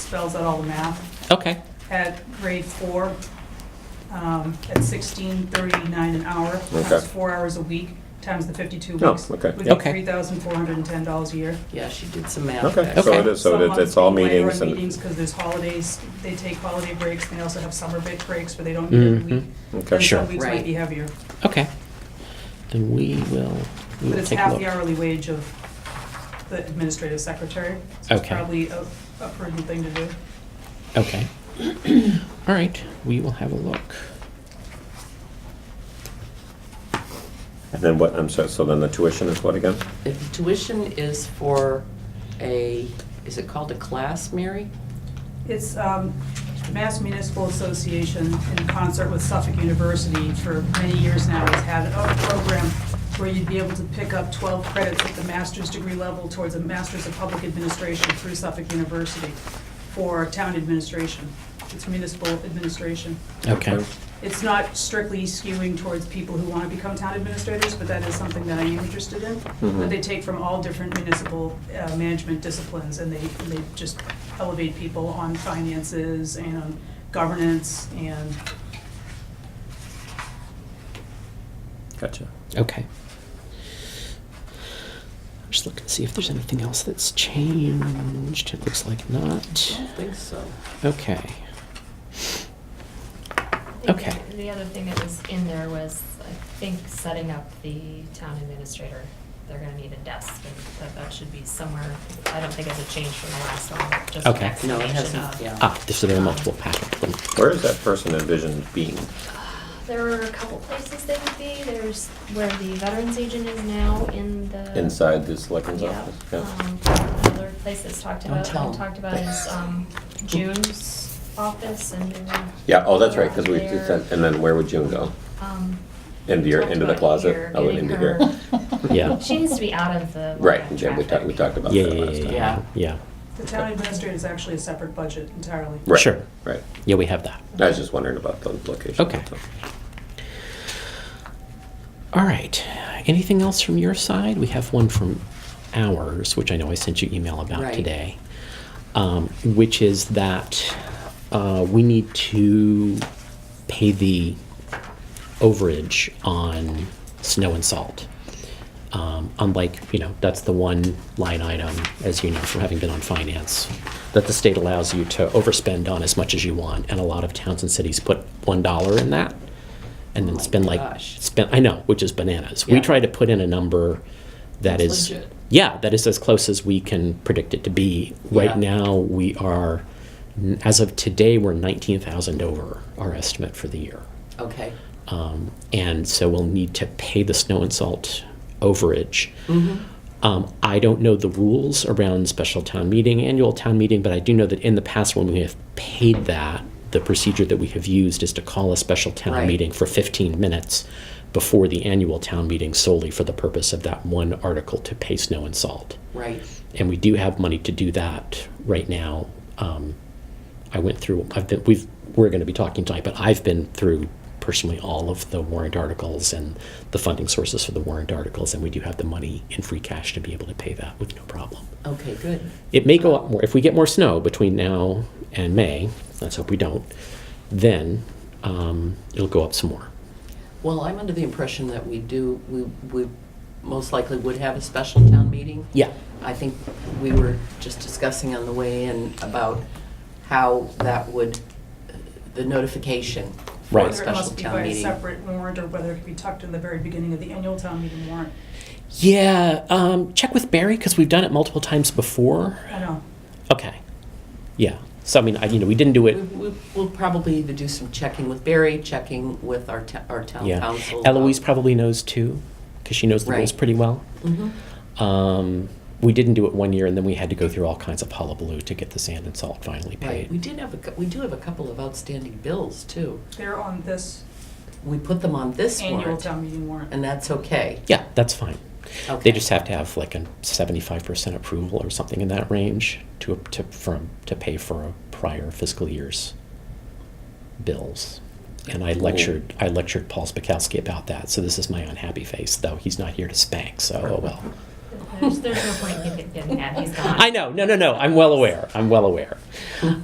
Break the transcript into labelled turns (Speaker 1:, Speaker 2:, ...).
Speaker 1: spells out all the math,
Speaker 2: Okay,
Speaker 1: at grade four, um, at sixteen thirty-nine an hour, times
Speaker 3: Okay.
Speaker 1: four hours a week, times the fifty-two
Speaker 3: Oh,
Speaker 1: weeks.
Speaker 3: okay.
Speaker 1: Would be
Speaker 2: Yep. Okay.
Speaker 1: three thousand four hundred and ten dollars a year.
Speaker 4: Yeah, she did some math.
Speaker 3: Okay,
Speaker 4: back.
Speaker 3: so it
Speaker 2: Okay.
Speaker 3: is, so it is- it's all meetings
Speaker 1: Some
Speaker 3: and.
Speaker 1: months they delay our meetings because there's holidays, they take holiday breaks, and they also have summer bit breaks where they don't meet every week.
Speaker 2: Mhm.
Speaker 3: Mm-hmm. Okay.
Speaker 1: And
Speaker 2: Sure.
Speaker 1: some weeks might
Speaker 4: Right.
Speaker 1: be heavier,
Speaker 2: okay. Then we will, we
Speaker 1: but
Speaker 2: will
Speaker 1: it's
Speaker 2: take a
Speaker 1: half the
Speaker 2: look.
Speaker 1: hourly wage of the administrative secretary. So it's
Speaker 2: Okay.
Speaker 1: probably a a prudent thing to do.
Speaker 2: Okay. All right, we will have a look.
Speaker 3: And then what, I'm sorry, so then the tuition is what again?
Speaker 4: If Tuition is for a, is it called a class, Mary?
Speaker 1: It's um, Mass Municipal Association in concert with Suffolk University for many years now has had a program where you'd be able to pick up 12 credits at the master's degree level towards a master's of public administration through Suffolk University for town administration. It's municipal administration.
Speaker 2: Okay,
Speaker 1: It's not strictly skewing towards people who want to become town administrators, but that is something that I am interested in.
Speaker 3: Mhm.
Speaker 1: But they take from all different municipal uh, management disciplines, and they, and they just elevate people on finances and governance and
Speaker 3: Gotcha.
Speaker 2: okay. Just looking to see if there's anything else that's changed. It looks like
Speaker 4: I
Speaker 2: not.
Speaker 4: don't think so.
Speaker 2: Okay.
Speaker 5: think
Speaker 2: Okay.
Speaker 5: the- The other thing that was in there was, I think, setting up the town administrator. They're gonna need a desk, and that, that should be somewhere, I don't think it's a change from the last one, but just an
Speaker 2: Okay.
Speaker 4: No, it
Speaker 5: explanation
Speaker 4: hasn't,
Speaker 5: of.
Speaker 4: yeah.
Speaker 2: Ah, this is a multiple packet. then.
Speaker 3: Where is that person envisioned being?
Speaker 5: There were a couple places they would be, there's where the veterans agent is now in the.
Speaker 3: Inside the selectman's
Speaker 5: Uh, Yeah,
Speaker 3: office?
Speaker 5: um, another place that's talked
Speaker 4: Don't
Speaker 5: about,
Speaker 4: tell 'em.
Speaker 5: talked about is, um, June's office and.
Speaker 3: Yeah, oh, that's right, because we,
Speaker 5: there.
Speaker 3: and then where would June go?
Speaker 5: Um,
Speaker 3: Into your,
Speaker 5: talked
Speaker 3: into the
Speaker 5: about here,
Speaker 3: closet? Oh,
Speaker 5: getting
Speaker 3: into here.
Speaker 5: her-
Speaker 2: Yeah.
Speaker 5: She needs to be out of the.
Speaker 3: Right,
Speaker 5: line of
Speaker 3: Jim, we talked, we
Speaker 5: traffic.
Speaker 3: talked about
Speaker 2: Yeah,
Speaker 3: that
Speaker 2: yeah,
Speaker 3: last
Speaker 2: yeah,
Speaker 3: time.
Speaker 2: yeah, yeah.
Speaker 1: the town administrator is actually a separate budget entirely.
Speaker 3: Right,
Speaker 2: Sure.
Speaker 3: Right.
Speaker 2: Yeah, we have that.
Speaker 3: I was just wondering about the location.
Speaker 2: Okay. All right. Anything else from your side? We have one from ours, which I know I sent you email about
Speaker 4: Right.
Speaker 2: today, um, which is that uh, we need to pay the overage on snow and salt. Um, unlike, you know, that's the one line item, as you know from having been on finance, that the state allows you to overspend on as much as you want, and a lot of towns and cities put one dollar in that, and
Speaker 4: Oh
Speaker 2: then
Speaker 4: my
Speaker 2: spend like
Speaker 4: gosh.
Speaker 2: spend. I know, which is bananas. We
Speaker 4: Yeah.
Speaker 2: try to put in a number that
Speaker 4: That's
Speaker 2: is,
Speaker 4: legit.
Speaker 2: yeah, that is as close as we can predict it to be. Right
Speaker 4: Yeah.
Speaker 2: now, we are, as of today, we're nineteen thousand over our estimate for the year.
Speaker 4: Okay.
Speaker 2: Um, and so we'll need to pay the snow and salt overage. Um, I don't know the rules around special town meeting, annual town meeting, but I do know that in the past when we have paid that, the procedure that we have used is to call a special town
Speaker 4: Right.
Speaker 2: meeting for 15 minutes before the annual town meeting solely for the purpose of that one article to pay snow and salt
Speaker 4: Right.
Speaker 2: and we do have money to do that right now. Um, I went through. I've been. We've. We're going to be talking tonight, but I've been through personally all of the warrant articles and the funding sources for the warrant articles, and we do have the money in free cash to be able to pay that with no problem.
Speaker 4: Okay, good.
Speaker 2: It may go up more if we get more snow between now and May. Let's hope we don't. Then um, it'll go up some more.
Speaker 4: Well, I'm under the impression that we do, we, we most likely would have a special town meeting.
Speaker 2: Yeah.
Speaker 4: I think we were just discussing on the way in about how that would, uh, the notification for
Speaker 2: Right.
Speaker 4: a
Speaker 1: Whether it
Speaker 4: special
Speaker 1: must be
Speaker 4: town
Speaker 1: by a
Speaker 4: meeting.
Speaker 1: separate warrant, or whether it could be tucked in the very beginning of the annual town meeting warrant.
Speaker 2: Yeah. Um, check with Barry because we've done it multiple times before.
Speaker 1: I know.
Speaker 2: Okay. Yeah. So I mean, I, you know, we didn't do it.
Speaker 4: We- we- We'll probably either do some checking with Barry, checking with our, ta- our town
Speaker 2: Yeah.
Speaker 4: council.
Speaker 2: Eloise probably knows too, because she knows the rules
Speaker 4: Right.
Speaker 2: pretty well.
Speaker 4: Mhm.
Speaker 2: Um, we didn't do it one year, and then we had to go through all kinds of hullabaloo to get the sand and salt finally
Speaker 4: Right, we
Speaker 2: paid.
Speaker 4: did have, a cou- we do have a couple of outstanding bills, too.
Speaker 1: They're on this
Speaker 4: We put them on this
Speaker 1: annual
Speaker 4: warrant,
Speaker 1: town meeting warrant.
Speaker 4: and that's okay.
Speaker 2: Yeah, that's fine. They
Speaker 4: Okay.
Speaker 2: just have to have like a seventy-five percent approval or something in that range to to from to pay for a prior fiscal year's bills. And I
Speaker 4: Cool.
Speaker 2: lectured I lectured Paul Spakowski about that. So this is my unhappy face, though he's not here to spank. So oh well.
Speaker 5: There's, there's no point in getting mad, he's gone.
Speaker 2: I know. No, no, no. I'm well aware. I'm well aware.